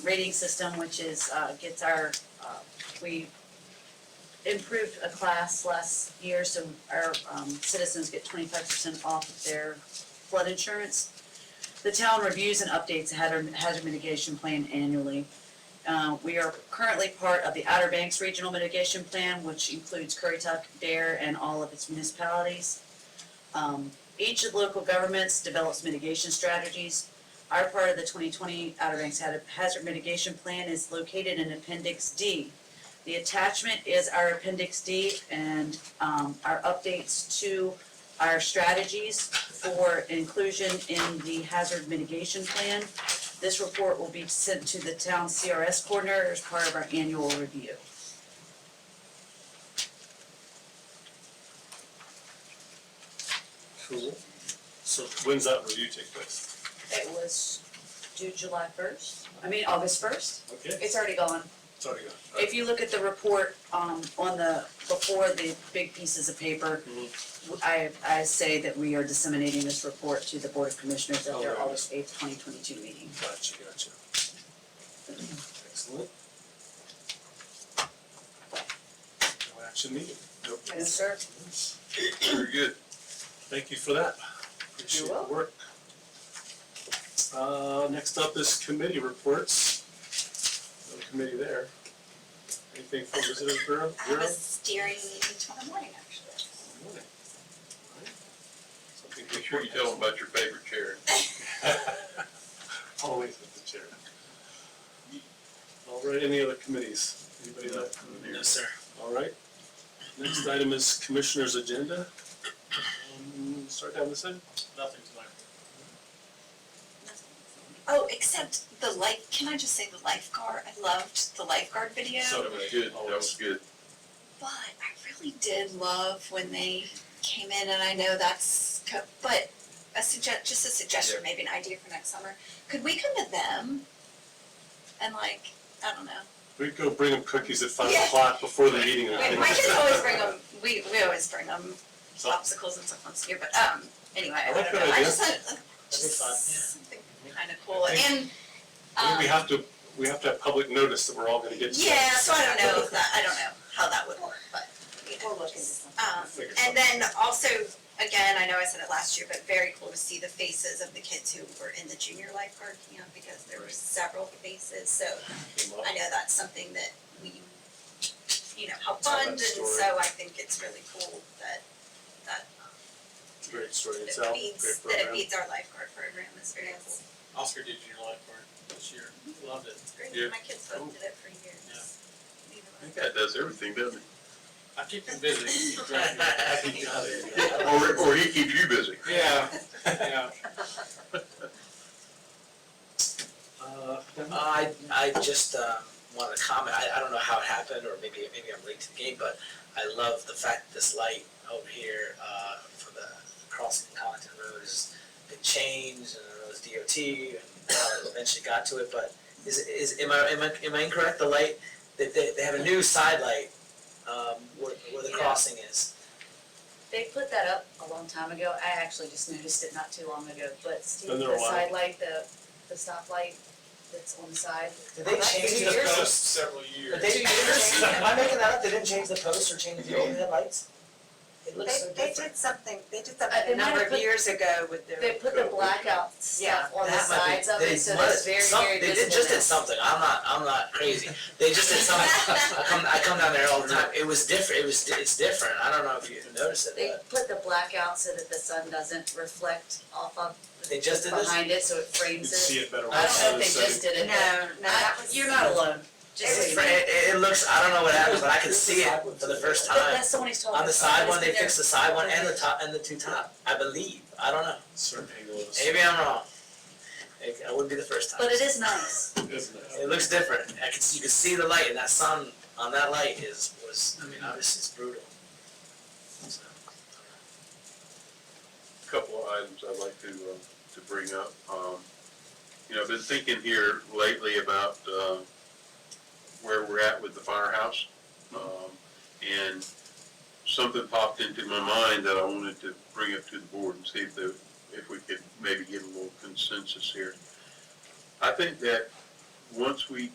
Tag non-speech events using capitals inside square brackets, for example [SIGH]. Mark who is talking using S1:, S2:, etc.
S1: rating system, which is, uh, gets our, uh, we improved a class last year, so our, um, citizens get twenty-five percent off of their flood insurance. The town reviews and updates a hazard, hazard mitigation plan annually. Uh, we are currently part of the Outer Banks Regional Mitigation Plan, which includes Currituck, Dare, and all of its municipalities. Um, each of the local governments develops mitigation strategies. Our part of the twenty twenty Outer Banks Had- Hazard Mitigation Plan is located in Appendix D. The attachment is our Appendix D and, um, our updates to our strategies for inclusion in the hazard mitigation plan. This report will be sent to the town CRS coordinator as part of our annual review.
S2: Cool. So when's that review take place?
S1: It was due July first, I mean, August first,
S2: Okay.
S1: it's already gone.
S2: Sorry, go. on.
S1: If you look at the report, um, on the, before the big pieces of paper,
S3: Mm-hmm.
S1: I, I say that we are disseminating this report to the Board of Commissioners at
S3: Oh,
S1: their
S2: Alright.
S1: August eighth, twenty twenty-two meeting.
S2: Gotcha, gotcha. Excellent. No action needed. Nope.
S1: Yes, sir.
S2: Very good. Thank you for that. Appreciate the
S1: welcome.
S2: work. Uh, next up is committee reports. No committee there. Anything from visitors bureau?
S4: I
S2: Bureau?
S4: have a steering meeting tomorrow morning, actually.
S2: Morning. All right. Something to
S5: Make sure you tell them about your favorite chair.
S2: Always with the chair. All right, any other committees? Anybody left?
S6: No, sir.
S2: All right. Next item is commissioner's agenda. Um, Start down this end.
S6: Nothing to my
S4: Oh, except the life, can I just say the lifeguard, I loved the lifeguard video,
S2: So-
S4: but
S5: That was good, that was good.
S4: I really did love when they came in, and I know that's, co- but a suggest, just a suggestion,
S5: Yeah.
S4: maybe an idea for next summer, could we come to them? And like, I don't know,
S2: We could go bring them cookies at five
S4: Yeah.
S2: o'clock before the meeting.
S4: We- my kids always bring them, we, we always bring them popsicles and stuff once a year, but, um, anyway, I
S2: I
S4: don't
S2: like that
S4: know, I
S2: idea.
S4: just had, uh,
S6: That'd be fun, yeah.
S4: just something kinda cool,
S2: I
S4: and,
S2: I think
S4: um.
S2: we have to, we have to have public notice that we're all gonna get. together.
S4: Yeah, so I don't know if that, I don't know how that would work, but, you know, just, um,
S2: Figure
S4: and then also, again, I know I said it last year, but very cool to see the faces of the kids who were in the junior lifeguard camp, because there were several faces, so
S2: Came up.
S4: I know that's something that we, you know, help
S2: Tell that
S4: fund, and
S2: story.
S4: so I think it's really cool that, that, um,
S2: Great story
S4: that
S2: itself,
S4: it beats,
S2: great
S4: that it
S2: program.
S4: beats our lifeguard program, it's very cool,
S6: Oscar did your lifeguard this year. Loved it.
S4: it's great,
S5: Yeah.
S4: my kids both did it for years. Neither
S5: I
S4: one.
S5: think that does everything, doesn't it?
S6: I keep him busy. He's driving.
S2: [LAUGHS]
S5: Or, or he keeps you busy.
S4: [LAUGHS]
S6: Yeah, yeah.
S2: Uh,
S3: I, I just um, wanted to comment, I, I don't know how it happened, or maybe, maybe I'm late to the game, but I love the fact that this light over here uh, for the crossing of Collington Road has been changed, and I know it's DOT, and how it eventually got to it, but is, is, am I, am I, am I incorrect, the light, they, they, they have a new side light um, where, where the
S1: Yeah.
S3: crossing is?
S1: They put that up a long time ago, I actually just noticed it not too long ago, but Steve,
S2: Been there a
S1: the
S2: while.
S1: side light, the, the stoplight that's on the side.
S3: Did they
S1: That's
S3: change
S1: two
S3: the
S1: years.
S3: post?
S6: several
S3: But they didn't change, am I making that up, they didn't change the post or change the overhead lights? It looks so
S7: They,
S3: different.
S7: they did something, they did
S1: Uh, they
S7: something a
S1: might have
S7: number of
S1: put-
S7: years ago with their.
S1: They put the blackout
S7: Yeah,
S1: stuff on the
S3: That might be-
S1: sides of
S3: they
S1: it, so
S3: might-
S1: that's very,
S3: some-
S1: very visible
S3: They did, just
S1: now.
S3: did something, I'm not, I'm not crazy, they just did
S1: [LAUGHS]
S3: something, I come, I come down there all the time, it was different, it was, di- it's different, I don't know if you noticed it,
S1: They
S3: but
S1: put the blackout so that the sun doesn't reflect off of.
S3: They just did this?
S1: Behind it, so it
S2: you'd
S1: frames
S2: see
S1: it.
S2: it better.
S1: I don't know if
S2: when
S1: they
S2: it's
S1: just
S2: setting.
S1: did
S7: No,
S1: it,
S7: no,
S1: but
S7: that
S1: I,
S7: was.
S1: you're not alone, just so you
S3: it's, it,
S1: know.
S3: it it looks, I don't know what happens, but I can see it for the first
S1: But
S3: time.
S1: that's the one he's talking about.
S3: On the side one, they
S1: It's been
S3: fixed the side one and the top, and the two top, I believe, I don't know,
S2: Certain angles.
S3: maybe I'm wrong. It, it wouldn't be the first
S1: there,
S3: time.
S1: But it is nice,
S2: Isn't it?
S3: It looks different, I can, see- you can see the light, and that sun on that light is, was, I mean, obviously it's brutal. So,
S5: Couple of items I'd like to, uh, to bring up. Um, you know, I've been thinking here lately about, uh, where we're at with the firehouse. Um, and something popped into my mind that I wanted to bring up to the board and see if the, if we could maybe get a little consensus here. I think that once we